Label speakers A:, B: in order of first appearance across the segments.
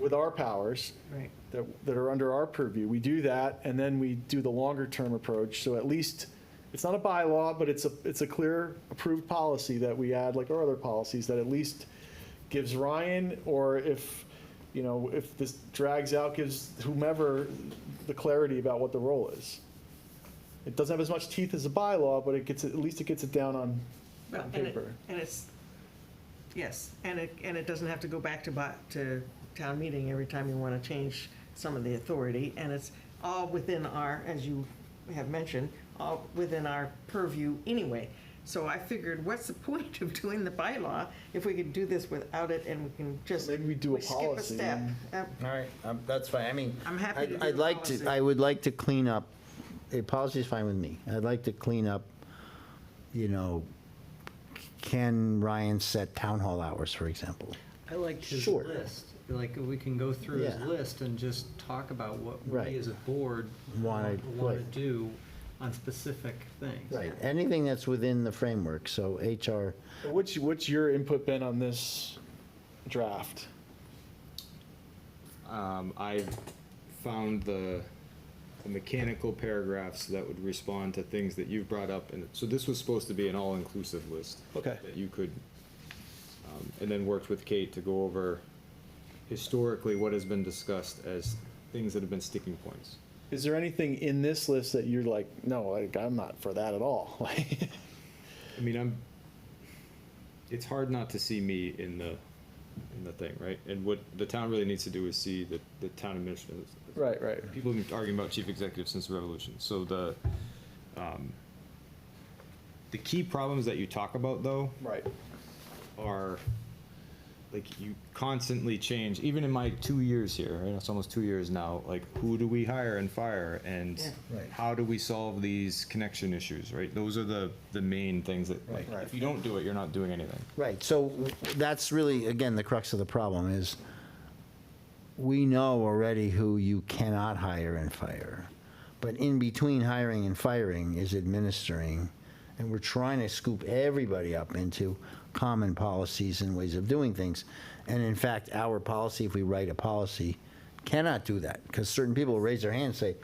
A: with our powers
B: Right.
A: that, that are under our purview. We do that, and then we do the longer-term approach, so at least, it's not a bylaw, but it's a, it's a clear approved policy that we add, like our other policies, that at least gives Ryan, or if, you know, if this drags out, gives whomever the clarity about what the role is. It doesn't have as much teeth as a bylaw, but it gets, at least it gets it down on,
B: Well,
A: on
B: and it-
A: paper.
B: And it's, yes, and it, and it doesn't have to go back to, bu- to town meeting every time you want to change some of the authority. And it's all within our, as you have mentioned, all within our purview anyway. So I figured, what's the point of doing the bylaw if we could do this without it and we can just.
A: Maybe we do a policy
B: skip a
A: and-
B: step. Uh,
C: All right, um, that's fine, I mean.
B: I'm happy
C: I'd-
B: to do
C: I'd
B: the
C: like
B: policy.
C: I would like to clean up, the policy's fine with me. I'd like to clean up, you know, can Ryan set town hall hours, for example?
D: I liked his
C: Sure.
D: list. Like, we can go through his
C: Yeah.
D: list and just talk about what
C: Right.
D: we as a board
C: Wanna-
D: want to
C: right.
D: do on specific things.
C: Right, anything that's within the framework, so HR,
A: What's, what's your input been on this draft?
E: Um, I found the, the mechanical paragraphs that would respond to things that you've brought up, and so this was supposed to be an all-inclusive list.
A: Okay.
E: That you could, um, and then worked with Kate to go over historically what has been discussed as things that have been sticking points.
A: Is there anything in this list that you're like, no, like, I'm not for that at all? Like,
E: I mean, I'm, it's hard not to see me in the, in the thing, right? And what the town really needs to do is see the, the town administrator.
A: Right, right.
E: People have been arguing about chief executive since the revolution, so the, um, the key problems that you talk about, though,
A: Right.
E: are, like, you constantly change, even in my two years here, right, it's almost two years now, like, who do we hire and fire, and
B: Yeah.
C: Right.
E: how do we solve these connection issues, right? Those are the, the main things that, like,
C: Right.
E: if you don't do it, you're not doing anything.
C: right, so that's really, again, the crux of the problem is we know already who you cannot hire and fire. But in between hiring and firing is administering, and we're trying to scoop everybody up into common policies and ways of doing things. And in fact, our policy, if we write a policy, cannot do that, because certain people raise their hand and say,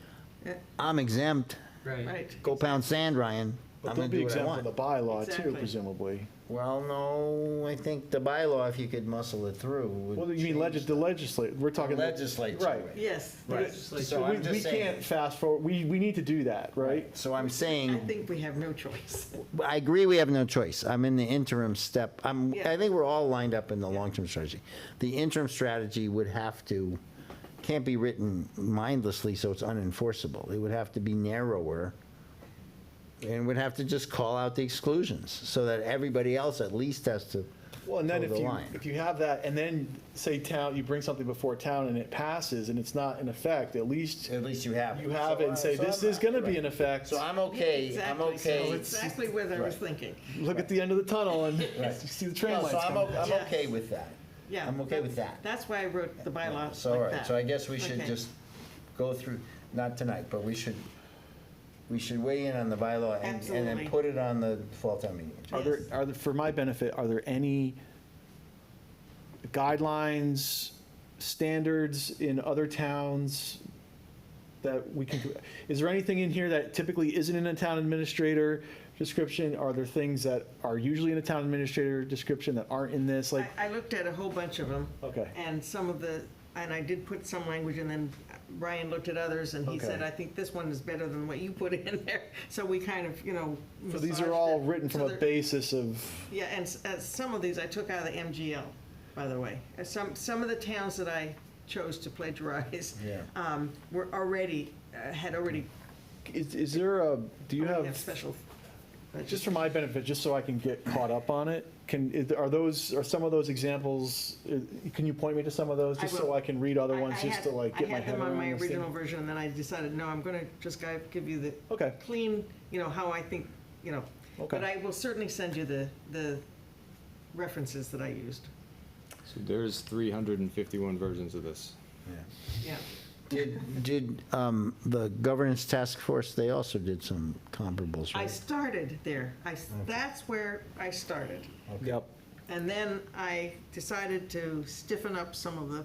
B: Yeah.
C: I'm exempt,
D: Right.
B: Right.
C: go pound sand, Ryan,
A: But
C: I'm
A: they'll
C: gonna
A: be
C: do what I
A: exempt from the
C: want.
A: bylaw too,
B: Exactly.
A: presumably.
C: Well, no, I think the bylaw, if you could muscle it through, would
A: Well, you mean legis, the legislature, we're talking.
C: Legislature.
A: Right.
B: Yes.
A: But
C: Right.
A: it-
C: So
A: we-
C: I'm just saying-
A: We can't fast forward, we, we need to do that, right?
C: So I'm
B: I
C: saying,
B: think we have no choice.
C: I agree, we have no choice. I'm in the interim step. I'm, I
B: Yeah.
C: think we're all lined up in the long-term strategy. The interim strategy would have to, can't be written mindlessly, so it's unenforceable. It would have to be narrower. And would have to just call out the exclusions, so that everybody else at least has to
A: Well, and then
C: toe
A: if
C: the
A: you,
C: line.
A: if you have that, and then say town, you bring something before town and it passes and it's not in effect, at least
C: At least you have.
A: you have it and say, this is gonna be in effect.
C: So I'm okay, I'm
B: Exactly. So
C: okay.
B: Exactly what I was
C: Right.
B: thinking.
A: Look at the end of the tunnel and
C: Right.
A: you see the train
C: No,
A: lights
C: So I'm,
A: coming.
C: o- I'm
B: Yeah.
C: okay with that.
B: Yeah.
C: I'm okay with that.
B: That's why I wrote the bylaws
C: So, all
B: like
C: right,
B: that.
C: so I guess we should
B: Okay.
C: just go through, not tonight, but we should, we should weigh in on the bylaw and, and then
B: Absolutely.
C: put it on the fall town meeting.
A: Are there,
B: Yes.
A: are there, for my benefit, are there any guidelines, standards in other towns that we can, is there anything in here that typically isn't in a town administrator description? Are there things that are usually in a town administrator description that aren't in this? Like,
B: I, I looked at a whole bunch of them.
A: Okay.
B: And some of the, and I did put some language, and then Brian looked at others, and he said,
A: Okay.
B: I think this one is better than what you put in there. So we kind of, you know.
A: so these
B: massaged
A: are all
B: it.
A: written from
B: So
A: a
B: they're-
A: basis of,
B: Yeah, and s- uh, some of these I took out of the MGL, by the way. Uh, Some, some of the towns that I chose to plagiarize
C: Yeah.
B: um, were already, uh, had already.
A: is, is there a, do you
B: already
A: have?
B: Special.
A: Just for my benefit, just so I can get caught up on it, can, is- are those, are some of those examples, uh, can you point me to some of those?
B: I
A: Just so
B: will.
A: I can read other
B: I-
A: ones,
B: I
A: just to
B: had-
A: like get my
B: I had
A: head
B: them on
A: around
B: my
A: this thing?
B: original version, and then I decided, no, I'm going to just gi- give you the
A: Okay.
B: clean, you know, how I think, you know.
A: Okay.
B: But I will certainly send you the, the references that I used,
E: So there's three hundred and fifty-one versions of this.
B: yeah.
C: Did, did, um, the governance task force, they also did some comparables,
B: I
C: right?
B: started there. I, s- that's where I started.
A: Yep,
B: And then I decided to stiffen up some of the